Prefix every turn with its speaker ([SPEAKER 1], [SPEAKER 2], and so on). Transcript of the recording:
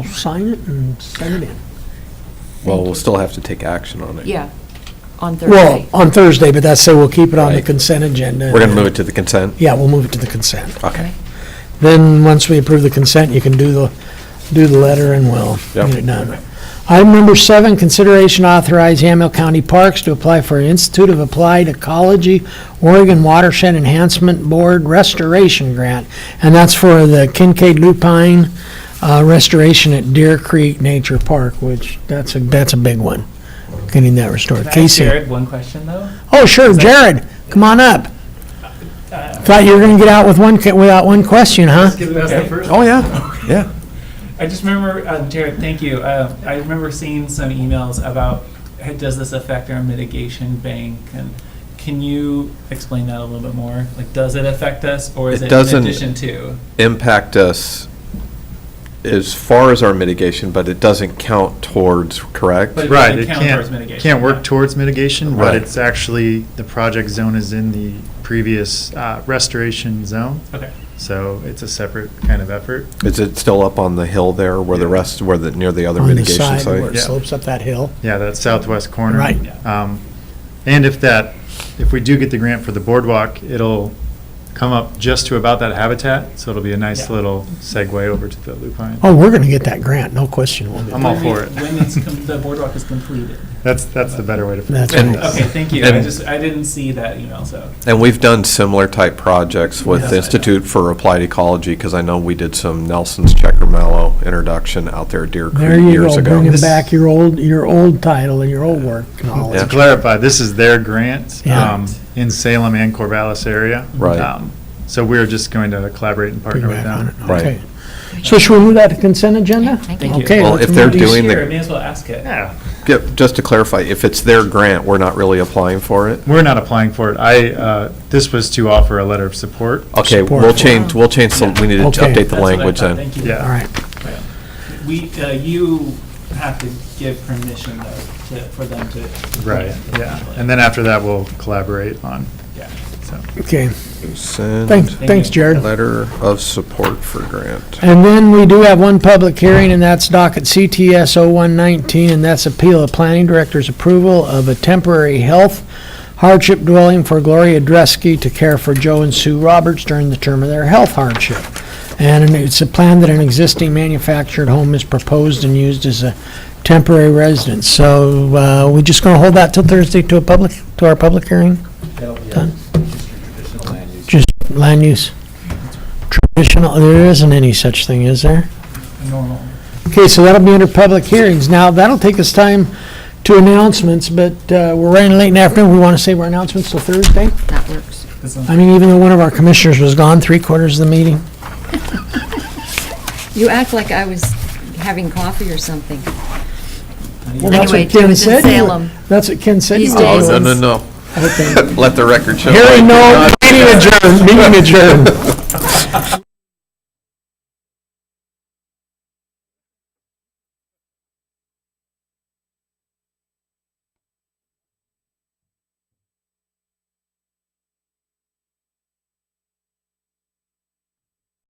[SPEAKER 1] sign it and send it in.
[SPEAKER 2] Well, we'll still have to take action on it.
[SPEAKER 3] Yeah, on
[SPEAKER 1] Well,
[SPEAKER 3] Thursday.
[SPEAKER 1] on Thursday, but that's, so we'll keep it on the
[SPEAKER 2] Right.
[SPEAKER 1] consent agenda.
[SPEAKER 2] We're going to move it to the consent?
[SPEAKER 1] Yeah, we'll move it to the consent.
[SPEAKER 2] Okay.
[SPEAKER 1] Then, once we approve the consent, you can do the, do the letter and we'll
[SPEAKER 2] Yep.
[SPEAKER 1] get it done. Item number seven, consideration authorize Hamilton County Parks to apply for Institute of Applied Ecology Oregon Watershed Enhancement Board Restoration Grant. And that's for the Kincaid Lupine uh, restoration at Deer Creek Nature Park, which, that's a, that's a big one, getting that restored.
[SPEAKER 4] Can I ask
[SPEAKER 1] Casey?
[SPEAKER 4] Jared one question, though?
[SPEAKER 1] Oh, sure, Jared, come on up. Thought you were gonna get out with one, ca- without one question, huh?
[SPEAKER 4] Okay.
[SPEAKER 2] Oh, yeah, yeah.
[SPEAKER 4] I just remember, um, Jared, thank you. Uh, I remember seeing some emails about, hey, does this affect our mitigation bank? And can you explain that a little bit more? Like, does it affect us, or is
[SPEAKER 2] It
[SPEAKER 4] it in
[SPEAKER 2] doesn't-
[SPEAKER 4] addition to?
[SPEAKER 2] Impact us as far as our mitigation, but it doesn't count towards, correct?
[SPEAKER 4] But it
[SPEAKER 5] Right,
[SPEAKER 4] doesn't
[SPEAKER 5] it
[SPEAKER 4] count towards
[SPEAKER 5] can't,
[SPEAKER 4] mitigation,
[SPEAKER 5] can't
[SPEAKER 4] yeah.
[SPEAKER 5] work towards mitigation,
[SPEAKER 2] Right.
[SPEAKER 5] but it's actually, the project zone is in the previous uh, restoration zone,
[SPEAKER 4] Okay.
[SPEAKER 5] so it's a separate kind of effort.
[SPEAKER 2] Is it still up on the hill there where the rest, where the, near the other
[SPEAKER 1] On the
[SPEAKER 2] mitigation
[SPEAKER 1] side where
[SPEAKER 2] site?
[SPEAKER 1] it
[SPEAKER 5] Yeah.
[SPEAKER 1] slopes up that hill.
[SPEAKER 5] Yeah, that southwest corner.
[SPEAKER 1] Right.
[SPEAKER 5] Um, And if that, if we do get the grant for the boardwalk, it'll come up just to about that habitat, so it'll be a nice
[SPEAKER 4] Yeah.
[SPEAKER 5] little segue over to the lupine.
[SPEAKER 1] Oh, we're gonna get that grant, no question we'll get
[SPEAKER 5] I'm all
[SPEAKER 4] When we-
[SPEAKER 5] for it.
[SPEAKER 4] When it's, com- the boardwalk is completed.
[SPEAKER 5] That's, that's the better way to. put
[SPEAKER 1] That's
[SPEAKER 5] it.
[SPEAKER 1] right.
[SPEAKER 4] Okay, thank you. I
[SPEAKER 2] And-
[SPEAKER 4] just, I didn't see that email, so.
[SPEAKER 2] And we've done similar type projects with
[SPEAKER 4] Yes,
[SPEAKER 2] the
[SPEAKER 4] I know.
[SPEAKER 2] Institute for Applied Ecology, because I know we did some Nelson's Checker Mellow introduction out there at Deer
[SPEAKER 1] There
[SPEAKER 2] Creek
[SPEAKER 1] you
[SPEAKER 2] years
[SPEAKER 1] go,
[SPEAKER 2] ago.
[SPEAKER 1] bringing
[SPEAKER 5] This-
[SPEAKER 1] back your old, your old title and your old work and all
[SPEAKER 5] To
[SPEAKER 1] that.
[SPEAKER 2] Yeah.
[SPEAKER 5] clarify, this is their grant
[SPEAKER 1] Yeah.
[SPEAKER 5] um, in Salem and Corvallis area.
[SPEAKER 2] Right.
[SPEAKER 5] Um, So we're just going to collaborate and
[SPEAKER 1] Bring
[SPEAKER 5] partner with
[SPEAKER 1] back on it,
[SPEAKER 5] them.
[SPEAKER 2] Right.
[SPEAKER 1] okay. So should we move that to consent agenda?
[SPEAKER 3] Thank
[SPEAKER 4] you.
[SPEAKER 1] Okay.
[SPEAKER 2] Well,
[SPEAKER 1] let's
[SPEAKER 2] if
[SPEAKER 1] move
[SPEAKER 2] they're
[SPEAKER 1] these-
[SPEAKER 2] doing the-
[SPEAKER 4] Sure, may as well ask it.
[SPEAKER 5] Yeah,
[SPEAKER 2] Yeah, Just to clarify, if it's their grant, we're not really applying for it?
[SPEAKER 5] we're not applying for it. I, uh, this was to offer a letter of support.
[SPEAKER 2] Okay,
[SPEAKER 1] Support
[SPEAKER 2] we'll
[SPEAKER 1] for-
[SPEAKER 2] change, we'll change, the- we need to
[SPEAKER 1] Okay.
[SPEAKER 2] update
[SPEAKER 4] That's
[SPEAKER 2] the
[SPEAKER 4] what I
[SPEAKER 2] language then.
[SPEAKER 4] thought. Thank you.
[SPEAKER 5] Yeah.
[SPEAKER 1] All right,
[SPEAKER 4] We, uh, you have to give permission though, to, for them to.
[SPEAKER 5] Right, yeah. And then after that, we'll collaborate on,
[SPEAKER 4] Yeah.
[SPEAKER 5] so.
[SPEAKER 1] okay, thanks,
[SPEAKER 2] Send
[SPEAKER 1] thanks, Jared.
[SPEAKER 2] letter of support for grant.
[SPEAKER 1] And then we do have one public hearing, and that's docket CTS 0119, and that's appeal of planning director's approval of a temporary health hardship dwelling for Gloria Dresky to care for Joe and Sue Roberts during the term of their health hardship. And it's a plan that an existing manufactured home is proposed and used as a temporary residence. So uh, we're just going to hold that till Thursday to a public, to our public hearing? Done. Just land use. Traditional, there isn't any such thing, is there?
[SPEAKER 4] Normal.
[SPEAKER 1] Okay, so that'll be under public hearings. Now, that'll take us time to announcements, but uh, we're running late in the afternoon. We want to save our announcements till Thursday.
[SPEAKER 3] That works.
[SPEAKER 4] This one's-
[SPEAKER 1] I mean, even though one of our commissioners was gone three quarters of the meeting.
[SPEAKER 3] You act like I was having coffee or something.
[SPEAKER 1] Well, that's what
[SPEAKER 3] Anyway,
[SPEAKER 1] Ken
[SPEAKER 3] he was in
[SPEAKER 1] said.
[SPEAKER 3] Salem.
[SPEAKER 1] That's what Ken said.
[SPEAKER 3] These
[SPEAKER 2] Oh,
[SPEAKER 3] days.
[SPEAKER 2] no, no, no.
[SPEAKER 1] Okay.
[SPEAKER 2] Let the record show.
[SPEAKER 1] Hearing no, meeting adjourned, meeting adjourned.